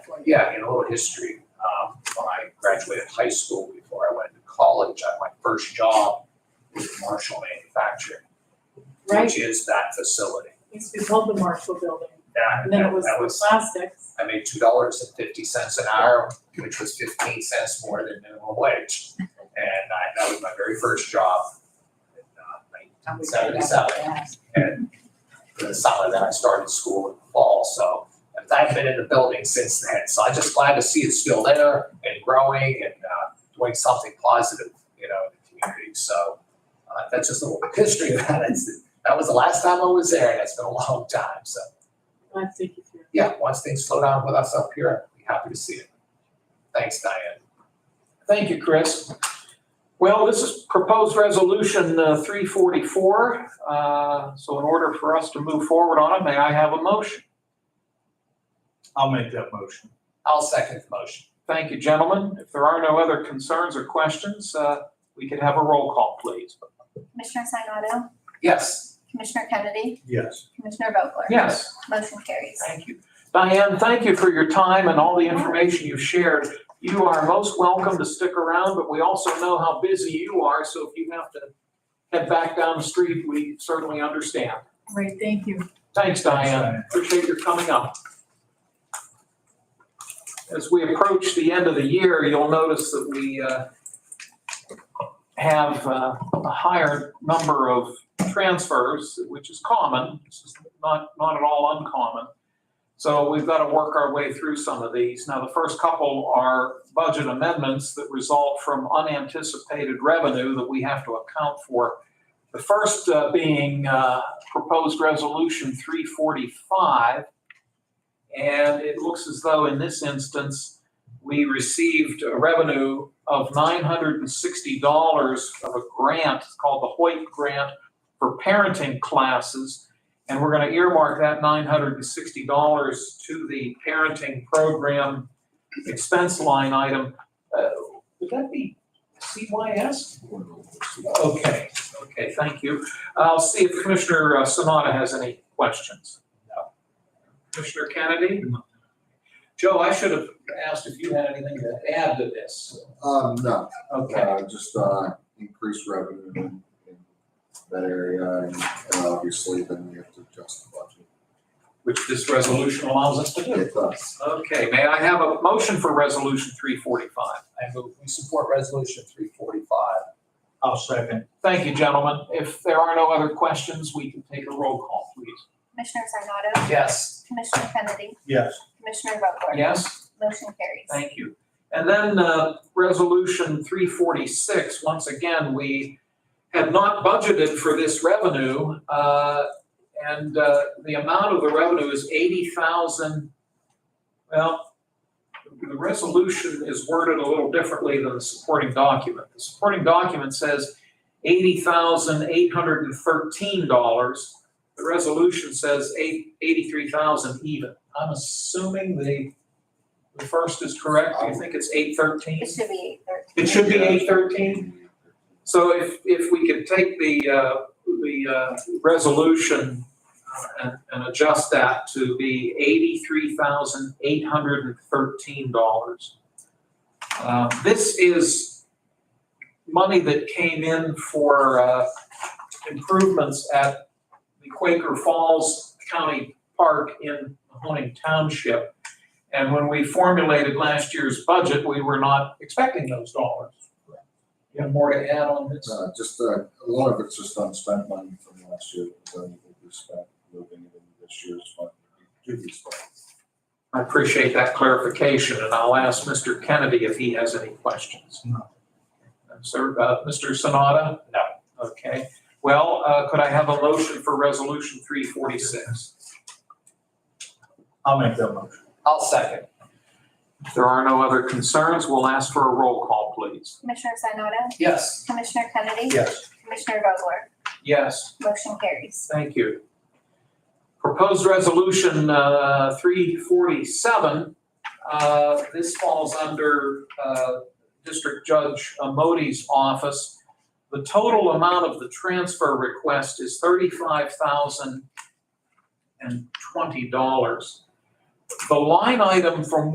for you. Yeah, in a little history, um, when I graduated high school, before I went to college, I, my first job was Marshall Manufacturing, Right, which is that facility. used to be called the Marshall Building, That, and then it that was that the was, plastics. I made two dollars and fifty cents an hour, which was fifteen cents more than minimum wage. And I, that was my very first job in uh, nineteen seventy-seven. And for the summer, then I started school in the fall, so I've been in the building since then. So I'm just glad to see it's still there and growing and uh, doing something positive, you know, in the community. So uh, that's just a little history of that. It's- That was the last time I was there, and it's been a long time. So, I think you through. yeah, once things slow down with us up here, I'd be happy to see it. Thanks, Diane. Thank you, Chris. Well, this is proposed resolution uh, 344. Uh, So in order for us to move forward on it, may I have a motion? I'll make that motion. I'll second the motion. Thank you, gentlemen. If there are no other concerns or questions, uh, we could have a roll call, please. Commissioner Sinata, Yes, Commissioner Kennedy, Yes. Commissioner Vogler? Yes. Motion carries. Thank you. Diane, thank you for your time and all the information you've shared. You are most welcome to stick around, but we also know how busy you are, so if you have to head back down the street, we certainly understand. Great, thank you. Thanks, Diane. Appreciate your coming up. As we approach the end of the year, you'll notice that we uh, have uh, a higher number of transfers, which is common. This is not, not at all uncommon. So we've got to work our way through some of these. Now, the first couple are budget amendments that result from unanticipated revenue that we have to account for. The first uh, being uh, proposed resolution three forty-five. And it looks as though in this instance, we received a revenue of nine hundred and sixty dollars of a grant it's called the Hoyt Grant for parenting classes. And we're gonna earmark that nine hundred and sixty dollars to the parenting program expense line item. Uh, Would that be CYS? Okay, okay, thank you. I'll see if Commissioner uh, Sanada has any questions. No. Commissioner Kennedy? Joe, I should have asked if you had anything to add to this. Um, no, Okay, uh, just, uh, increased revenue in in that area, and and obviously then you have to adjust the budget. which this resolution allows us to do. It does. Okay, may I have a motion for Resolution 345? I move, we support resolution three forty-five. I'll second. Thank you, gentlemen. If there are no other questions, we can take a roll call, please. Commissioner Sinata, Yes. Commissioner Kennedy, Yes. Commissioner Vogler? Yes? Motion carries. Thank you. And then, uh, resolution three forty-six, once again, we had not budgeted for this revenue, uh, and, uh, the amount of the revenue is eighty thousand. Well, the resolution is worded a little differently than the supporting document. The supporting document says eighty thousand eight hundred and thirteen dollars. The resolution says eight, eighty-three thousand even. I'm assuming the the first is correct, Do you think it's eight thirteen? It should be eight thirteen. It should be eight thirteen? So if, if we could take the, uh, the, uh, resolution uh, and, and adjust that to be eighty-three thousand eight hundred and thirteen dollars. Uh, this is money that came in for, uh, improvements at the Quaker Falls County Park in Mahoning Township. And when we formulated last year's budget, we were not expecting those dollars. You have more to add on this? Uh, just, uh, a lot of it's just unspent money from last year, so we will be spent moving it into this year's fund, previous fund. I appreciate that clarification, and I'll ask Mr. Kennedy if he has any questions. No. Sir, uh, Mr. Sanada? No. Okay. Well, uh, could I have a motion for Resolution 346? I'll make that motion. I'll second. If there are no other concerns, we'll ask for a roll call, please. Commissioner Sinata, Yes. Commissioner Kennedy, Yes. Commissioner Vogler? Yes. Motion carries. Thank you. Proposed resolution uh, 347, uh, this falls under uh, District Judge Modi's office. The total amount of the transfer request is $35,020. The line item from